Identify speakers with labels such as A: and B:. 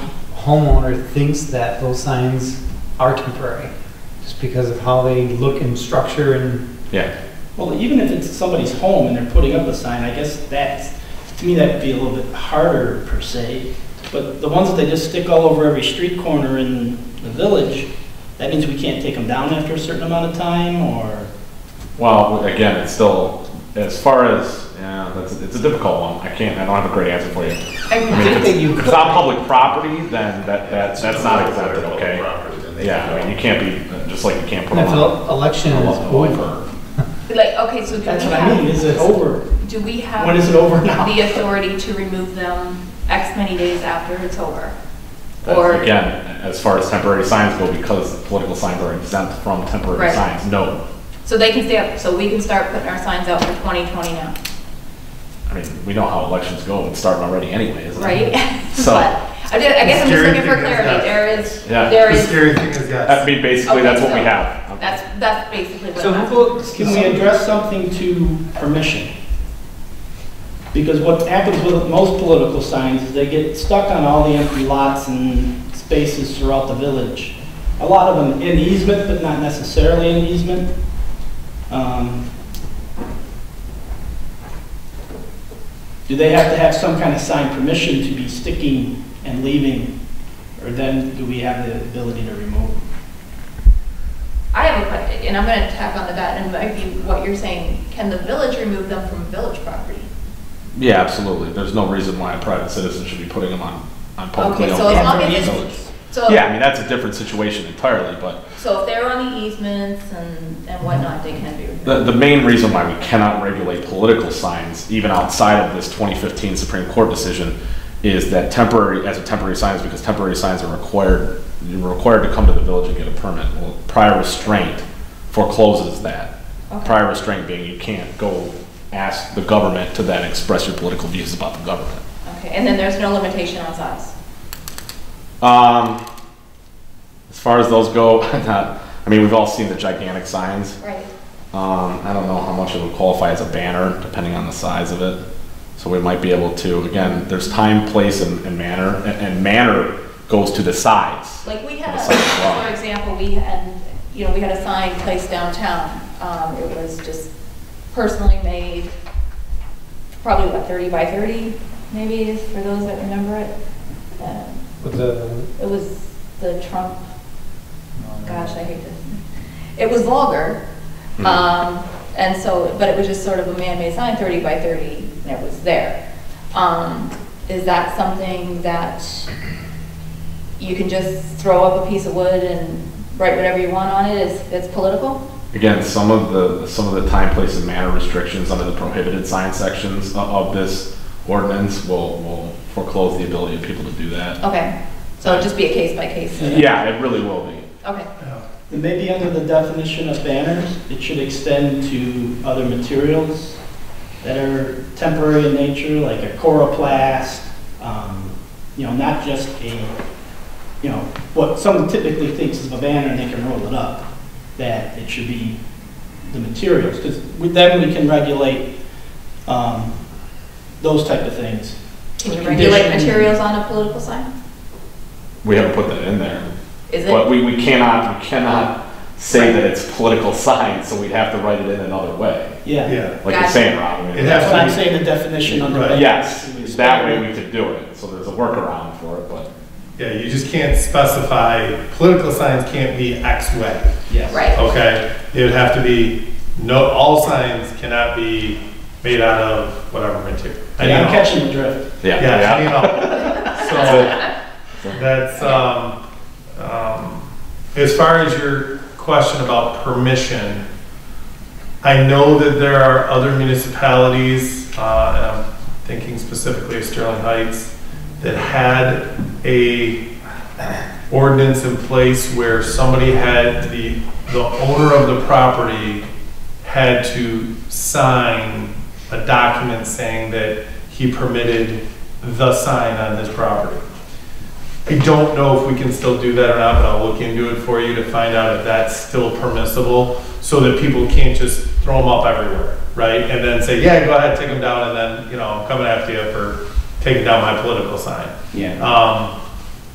A: homeowner thinks that those signs are temporary, just because of how they look and structure and,
B: Yeah,
C: Well, even if it's somebody's home and they're putting up a sign, I guess that's, to me, that'd be a little bit harder per se. But the ones that they just stick all over every street corner in the village, that means we can't take them down after a certain amount of time or,
B: well, again, it's still, as far as, yeah, that's, it's a difficult one. I can't, I don't have a great answer for you.
A: I
B: I
A: would
B: mean,
A: think
B: if
A: that you
B: it's- if
A: could.
B: it's not public property, then that, that,
D: It's
B: that's
D: just
B: not
D: a
B: exempted,
D: public
B: okay?
D: property, then they
B: Yeah,
D: can
B: I mean,
D: go.
B: you can't be, just like you can't put
A: And
B: them
A: if
B: on.
A: the election is over.
E: Like, okay, so do we
C: that's what I mean,
E: have,
C: is it over?
E: do we
C: When is it
E: have
C: over now?
E: the authority to remove them X many days after it's over?
B: But
E: Or,
B: Again, as far as temporary signs go, because political signs are exempt from temporary
E: Right.
B: signs, no.
E: so they can stay up, so we can start putting our signs out for 2020 now,
B: I mean, we know how elections go, it's starting already anyway, isn't it?
E: right?
B: So-
E: But I did- I guess I'm just
D: Scary
E: looking for
D: thing is
E: clarity.
D: that-
E: There is,
B: Yeah.
E: there
D: The
E: is,
D: scary thing is,
B: I
D: yes,
B: mean, basically,
E: Okay,
B: that's what we
E: so
B: have.
E: that's, that's basically
A: So
E: what,
A: how about,
C: Can we address something to permission? Because what happens with most political signs is they get stuck on all the empty lots and spaces throughout the village. A lot of them in easement, but not necessarily in easement. Um, Do they have to have some kind of sign permission to be sticking and leaving? Or then do we have the ability to remove?
E: I have a question, and I'm gonna tack on to that, and might be what you're saying, can the village remove them from village property?
B: Yeah, absolutely, there's no reason why a private citizen should be putting them on, on publicly
E: Okay,
B: owned.
E: so as long
B: property.
E: as
B: So-
E: it's, so.
B: Yeah, I mean, that's a different situation entirely, but
E: So if they're on the easements and, and whatnot, they can be removed.
B: the, the main reason why we cannot regulate political signs, even outside of this 2015 Supreme Court decision, is that temporary, as a temporary sign, is because temporary signs are required, you're required to come to the village and get a permit. Well, prior restraint forecloses that.
E: Okay.
B: Prior restraint being you can't go ask the government to then express your political views about the government.
E: Okay, and then there's no limitation on size.
B: Um, as far as those go, not, I mean, we've all seen the gigantic signs.
E: Right.
B: Um, I don't know how much it would qualify as a banner, depending on the size of it. So we might be able to, again, there's time, place, and, and manner, and, and manner goes to the size.
E: Like we
B: Of
E: had,
B: a
E: a-
B: size block.
E: for example, we had, you know, we had a sign placed downtown. Um, it was just personally made, probably what, 30 by 30 maybe, is for those that remember it. Um,
A: with the,
E: It was the Trump, gosh, I hate this. It was vulgar.
B: Mhm.
E: Um, and so, but it was just sort of a man-made sign, 30 by 30, and it was there. Um, is that something that you can just throw up a piece of wood and write whatever you want on it? It's, it's political?
B: Again, some of the, some of the time, place, and manner restrictions under the prohibited sign sections of, of this ordinance will, will foreclose the ability of people to do that.
E: Okay, so it'd just be a case by case.
B: Yeah, it really will be.
E: Okay,
C: And Maybe under the definition of banners, it should extend to other materials that are temporary in nature, like a coroplast, um, you know, not just a, you know, what someone typically thinks is a banner and they can roll it up, that it should be the materials, because then we can regulate um, those type of things.
E: can you regulate
C: Condition.
E: materials on a political sign?
B: We haven't put that in there.
E: Is it?
B: But we, we cannot, we cannot say that it's political science, so we'd have to write it in another way,
C: Yeah,
D: yeah.
B: like you're
E: Gotcha.
B: saying, Rob. I mean,
D: It has
C: that's
D: to
C: what I'm
D: be-
C: saying, the definition under.
D: Right.
C: banners.
B: Yes, that way we could do it, so there's a workaround for it, but.
D: Yeah, you just can't specify, political signs can't be X way,
C: Yes.
D: Oh,
E: Right.
D: okay? It would have to be, no, all signs cannot be made out of whatever material. I
C: Yeah, I'm
D: mean, all-
C: catching the drift.
D: Yeah, I mean, all. So, that's, um, um, as far as your question about permission, I know that there are other municipalities, uh, and I'm thinking specifically of Sterling Heights, that had a ordinance in place where somebody had, the, the owner of the property had to sign a document saying that he permitted the sign on his property. I don't know if we can still do that or not, but I'll look into it for you to find out if that's still permissible, so that people can't just throw them up everywhere, right? And then say, yeah, go ahead, take them down, and then, you know, I'm coming after you for taking down my political sign.
C: Yeah.
D: Um,